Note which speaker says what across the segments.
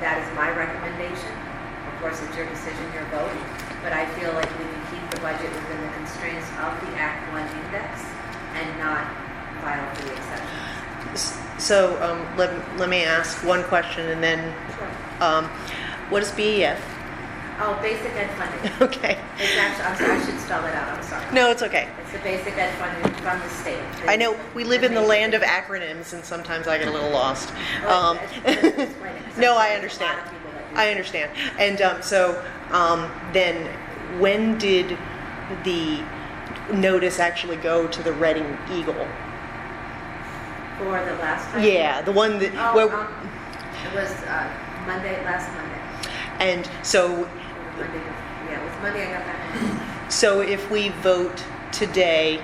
Speaker 1: that is my recommendation. Of course, it's your decision, your vote, but I feel like we can keep the budget within the constraints of the Act One index and not file for the exception.
Speaker 2: So um, let, let me ask one question and then um, what is BEF?
Speaker 1: Oh, basic ed funding.
Speaker 2: Okay.
Speaker 1: It's actually, I'm sorry, I should spell it out, I'm sorry.
Speaker 2: No, it's okay.
Speaker 1: It's the basic ed funding from the state.
Speaker 2: I know we live in the land of acronyms and sometimes I get a little lost. Um,
Speaker 1: Oh,
Speaker 2: no, I understand. I understand. And um, so um, then when did the notice actually go to the Reading Eagle?
Speaker 1: For the last time?
Speaker 2: Yeah, the one that,
Speaker 1: Oh,
Speaker 2: well,
Speaker 1: um, it was uh, Monday, last Monday.
Speaker 2: and so
Speaker 1: Monday, yeah, it was Monday I got that.
Speaker 2: So if we vote today,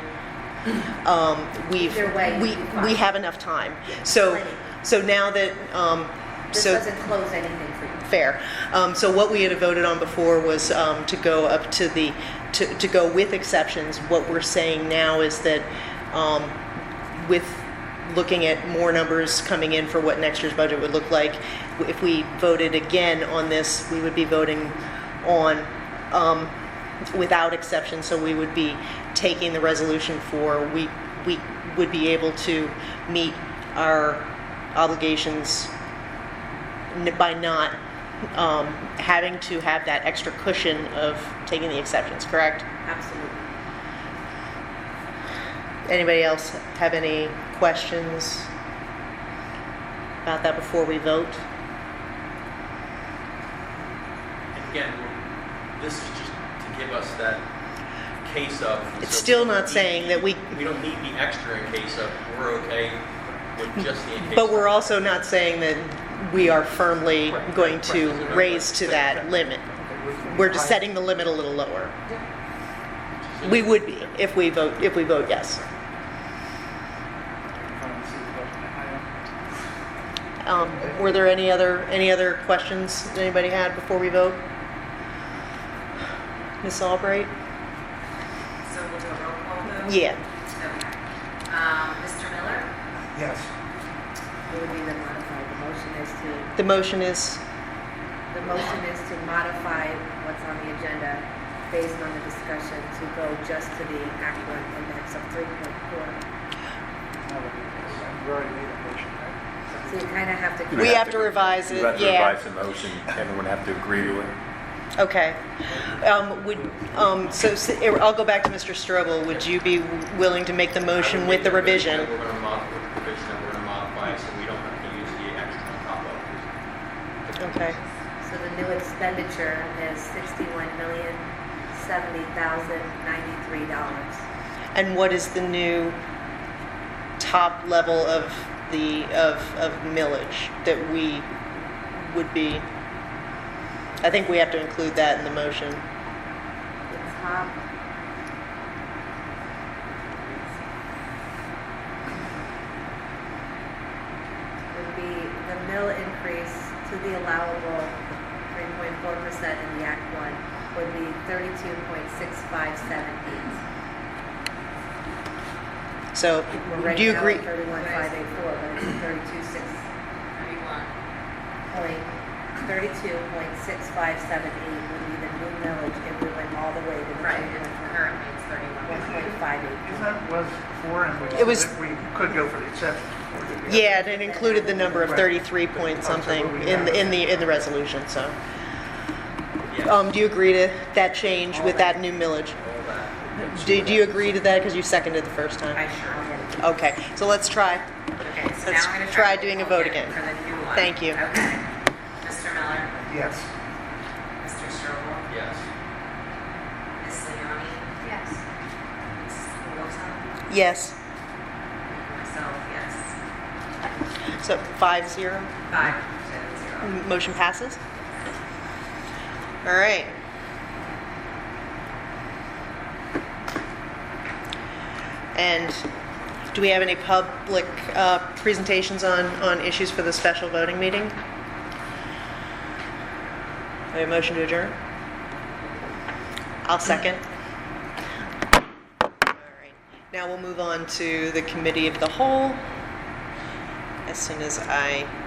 Speaker 2: um, we've,
Speaker 1: Either way,
Speaker 2: we,
Speaker 1: you'd be fine.
Speaker 2: we have enough time. So,
Speaker 1: Plenty.
Speaker 2: so now that, um,
Speaker 1: This
Speaker 2: so,
Speaker 1: doesn't close anything for you.
Speaker 2: fair. Um, so what we had voted on before was, um, to go up to the, to, to go with exceptions. What we're saying now is that, um, with looking at more numbers coming in for what next year's budget would look like, if we voted again on this, we would be voting on, um, without exception, so we would be taking the resolution for, we, we would be able to meet our obligations n- by not um, having to have that extra cushion of taking the exceptions, correct?
Speaker 1: Absolutely.
Speaker 2: Anybody else have any questions about that before we vote?
Speaker 3: And Again, we're- this is just to give us that case of.
Speaker 2: It's
Speaker 3: so
Speaker 2: still
Speaker 3: we don't
Speaker 2: not saying
Speaker 3: need
Speaker 2: that we-
Speaker 3: the- We don't need the extra in case of, we're okay with just the in case.
Speaker 2: Mm. But we're
Speaker 3: of.
Speaker 2: also not saying that we are firmly
Speaker 3: Right,
Speaker 2: going
Speaker 3: right,
Speaker 2: to
Speaker 3: right.
Speaker 2: raise to that limit. We're just setting the limit a little lower. We would be if we vote, if we vote yes. Um, Were there any other, any other questions that anybody had before we vote? Ms. Albright?
Speaker 4: So we'll do a roll call vote?
Speaker 2: Yeah.
Speaker 4: Okay. Um, Mr. Miller?
Speaker 5: Yes.
Speaker 1: It would be the modified, the motion is to,
Speaker 2: The motion is,
Speaker 1: the motion is to modify what's on the agenda based on the discussion to go just to the Act One index of three point four.
Speaker 5: You already made a motion, right?
Speaker 1: So you kind of have to.
Speaker 2: we have to revise it,
Speaker 6: You have to
Speaker 2: yeah.
Speaker 6: revise the motion, everyone have to agree to it.
Speaker 2: Okay. Um, Would, um, so s- I'll go back to Mr. Strobel. Would you be willing to make the motion with the revision?
Speaker 3: We're gonna mod, with the revision, that we're gonna modify it so we don't have to use the extra on top of
Speaker 2: Okay.
Speaker 1: So the new expenditure is sixty-one million, seventy thousand, ninety-three dollars.
Speaker 2: And what is the new top level of the, of, of millage that we would be? I think we have to include that in the motion.
Speaker 1: The top. Would be the mill increase to the allowable three point four percent in the Act One would be thirty-two point six five seven eight.
Speaker 2: So,
Speaker 1: We're
Speaker 2: do you agree?
Speaker 1: Right now at thirty-one five eight four, but it's thirty-two six,
Speaker 4: Thirty-one.
Speaker 1: point, thirty-two point six five seven eight would be the new millage if we went all the way to the
Speaker 4: Right, and currently it's thirty-one.
Speaker 1: one point five eight.
Speaker 5: Because that was four and we.
Speaker 2: It was-
Speaker 5: We could go for the exception. before the-
Speaker 2: Yeah, and it included the number of 33 point something in, the- in the, in the resolution, so.
Speaker 3: it. Yes, all
Speaker 2: Um, do you agree to that change with that new millage?
Speaker 3: that.
Speaker 2: Do, do you agree to that? Because you seconded the first
Speaker 4: I
Speaker 2: time.
Speaker 4: sure.
Speaker 2: Okay, so let's try.
Speaker 4: Okay, so
Speaker 2: Let's
Speaker 4: now we're gonna
Speaker 2: try
Speaker 4: try.
Speaker 2: doing a
Speaker 4: roll
Speaker 2: vote again.
Speaker 4: For the new one.
Speaker 2: Thank you.
Speaker 4: Okay. Mr. Miller?
Speaker 5: Yes.
Speaker 4: Mr. Strobel?
Speaker 3: Yes,
Speaker 4: Ms. Leoni? Yes. Mrs. Wilson?
Speaker 2: Yes.
Speaker 4: Myself, yes.
Speaker 2: So five zero,
Speaker 4: Five to zero.
Speaker 2: motion passes. All right. And do we have any public uh, presentations on, on issues for the special voting meeting? Have a motion to adjourn? I'll second. All right. Now we'll move on to the committee of the whole. As soon as I